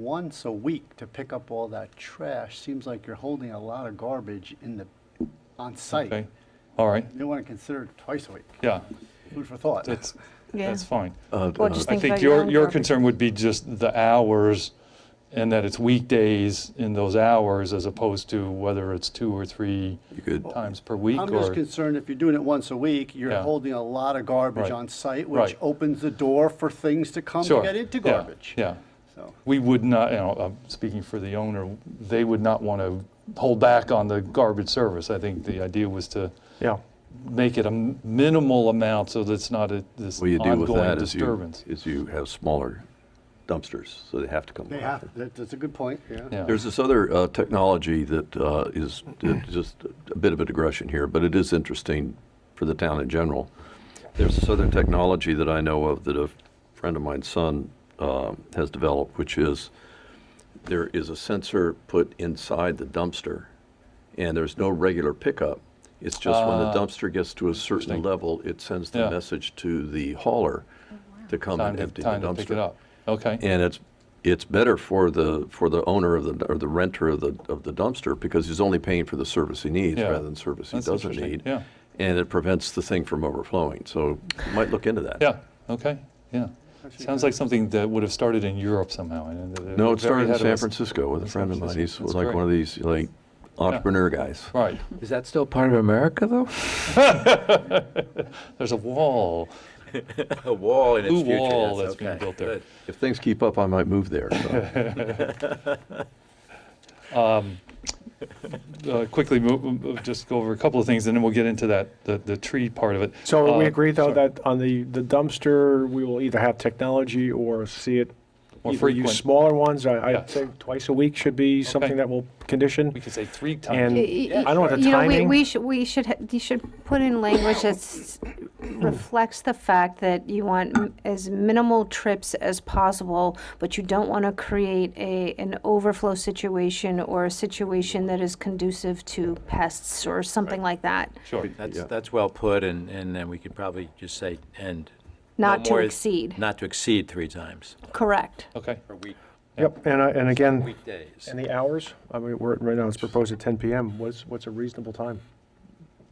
once a week to pick up all that trash, seems like you're holding a lot of garbage in the, on site. Okay, all right, You want to consider it twice a week. yeah, Food for thought. that's, Yeah. that's fine. Uh, Or uh, just I Think about think your your, own your property. concern would be just the hours and that it's weekdays in those hours as opposed to whether it's two or three You could- times per week I'm just or, concerned if you're doing it once a week, you're Yeah. holding a lot of garbage Right. on site, which Right. opens the door for things to come to sure. get into yeah, garbage. Yeah. So, We would not, you know, I'm speaking for the owner, they would not want to hold back on the garbage service. I think the idea was to Yeah. make it a m- minimal amount so that it's not a, this What you do with ongoing that is you, disturbance. is you have smaller dumpsters, so they have to come. they back. have, that- that's a good point, yeah. Yeah. There's this other uh, technology that uh, is that just a bit of a digression here, but it is interesting for the town in general. There's this other technology that I know of that a friend of mine's son uh, has developed, which is there is a sensor put inside the dumpster, and there's no regular pickup. It's just when the Ah. dumpster gets to a certain Interesting. level, it sends the Yeah. message to the hauler to come Time and to, empty the time dumpster to pick it up. Okay, and it's it's better for the for the owner of the or the renter of the of the dumpster because he's only paying for the service he needs Yeah. rather than service he That's doesn't interesting, need. yeah. And it prevents the thing from overflowing. So you might look into that. yeah, okay, yeah. Actually, Sounds yeah. like something that would have started in Europe somehow. and they're No, very it started in ahead of San us. Francisco with a That's friend of mine. interesting. That's He's like great. one of these like entrepreneur guys. Right, Is that still part of America, though? there's a wall, A wall in its blue future. wall yes, that's being okay, built there. good. If things keep up, I might move there. so. Uh, Quickly, mo- mo- just go over a couple of things and then we'll get into that, the, the tree part of it. So we Uh, agree, though, sorry. that on the, the dumpster, we will either have technology or see it. More either use frequent. smaller ones. I, Yeah. I'd say twice a week should be something that will condition. We could say three times. And I don't know what the You know, we- timing. We should, we should, ha- you should put in language that s- reflects the fact that you want m- as minimal trips as possible, but you don't want to create a, an overflow situation or a situation that is conducive to pests or something like that. Sure, That's, that's well put, and, and then we could probably just say, and. no Not to more- exceed. Not to exceed three times. Correct. okay, Per week. Yep, and, I- and again, Weekdays. and the hours, I mean, we're, right now it's proposed at 10 PM. What's, what's a reasonable time?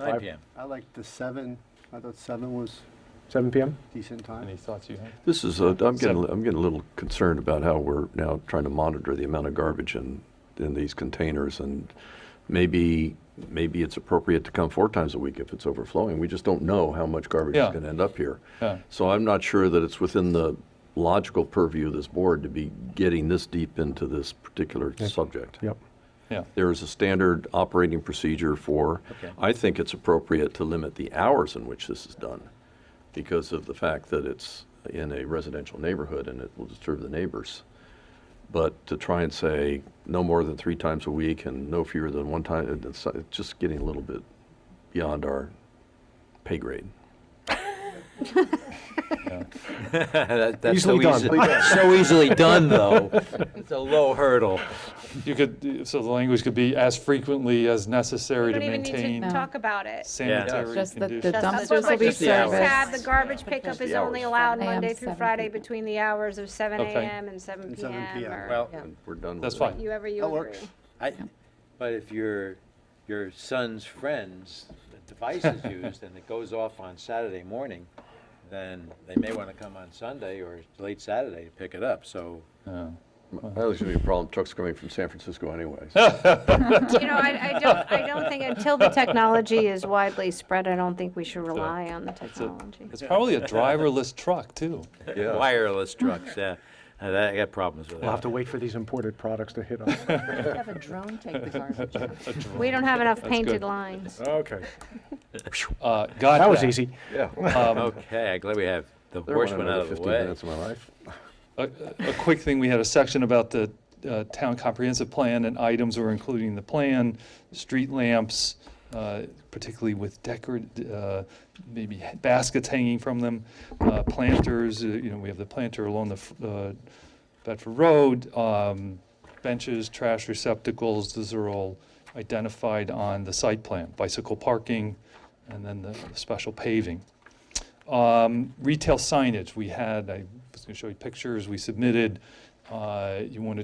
Nine five- PM. I like the seven, I thought seven was 7 PM? decent time. any thoughts you have? This is, a- I'm getting, So- I'm getting a little concerned about how we're now trying to monitor the amount of garbage in, in these containers, and maybe, maybe it's appropriate to come four times a week if it's overflowing. We just don't know how much garbage is Yeah. gonna end up here. Yeah. So I'm not sure that it's within the logical purview of this board to be getting this deep into this particular subject Yep. Yeah, there is a standard operating procedure for. Okay. I think it's appropriate to limit the hours in which this is done because of the fact that it's in a residential neighborhood and it will disturb the neighbors. But to try and say no more than three times a week and no fewer than one time, it's it's just getting a little bit beyond our pay grade. That- that's so Easily done. easy- So easily done, though. It's a low hurdle. you could, so the language could be as frequently as necessary to maintain talk about it. sanitary Just that the conditions. That's dumpsters what will be you Just the hours. serviced. have, the garbage pickup is the only hours. allowed 7 Monday a.m., through 7 Friday p.m. between the hours of seven Okay. AM and seven And 7 PM, PM. or Well, We're done with That's it. fine, you ever you That agree. works. I, but if your, your son's friend's device is used and it goes off on Saturday morning, then they may want to come on Sunday or late Saturday to pick it up, so. That was gonna be a problem. Trucks coming from San Francisco anyway. You know, I, I don't, I don't think, until the technology is widely spread, I don't think we should rely on the technology. it's probably a driverless truck too. Yeah. Wireless trucks, yeah. Uh, that- I got problems with that. We'll have to wait for these imported products to hit us. Have a drone take the garbage out. We don't have enough good. painted lines. Okay. Uh, Got That was easy. Yeah. Okay, I'm glad we have the There went worst one Um, another out of the 15 way. minutes of my life. A a quick thing, we had a section about the uh, town comprehensive plan and items we're including in the plan, street lamps, uh, particularly with decorative, uh, maybe ha- baskets hanging from them, uh, planters, uh, you know, we have the planter along the f- uh, Bedford Road, um, benches, trash receptacles, these are all identified on the site plan, bicycle parking, and then the special paving. Um, Retail signage, we had, I was going to show you pictures, we submitted, uh, you want to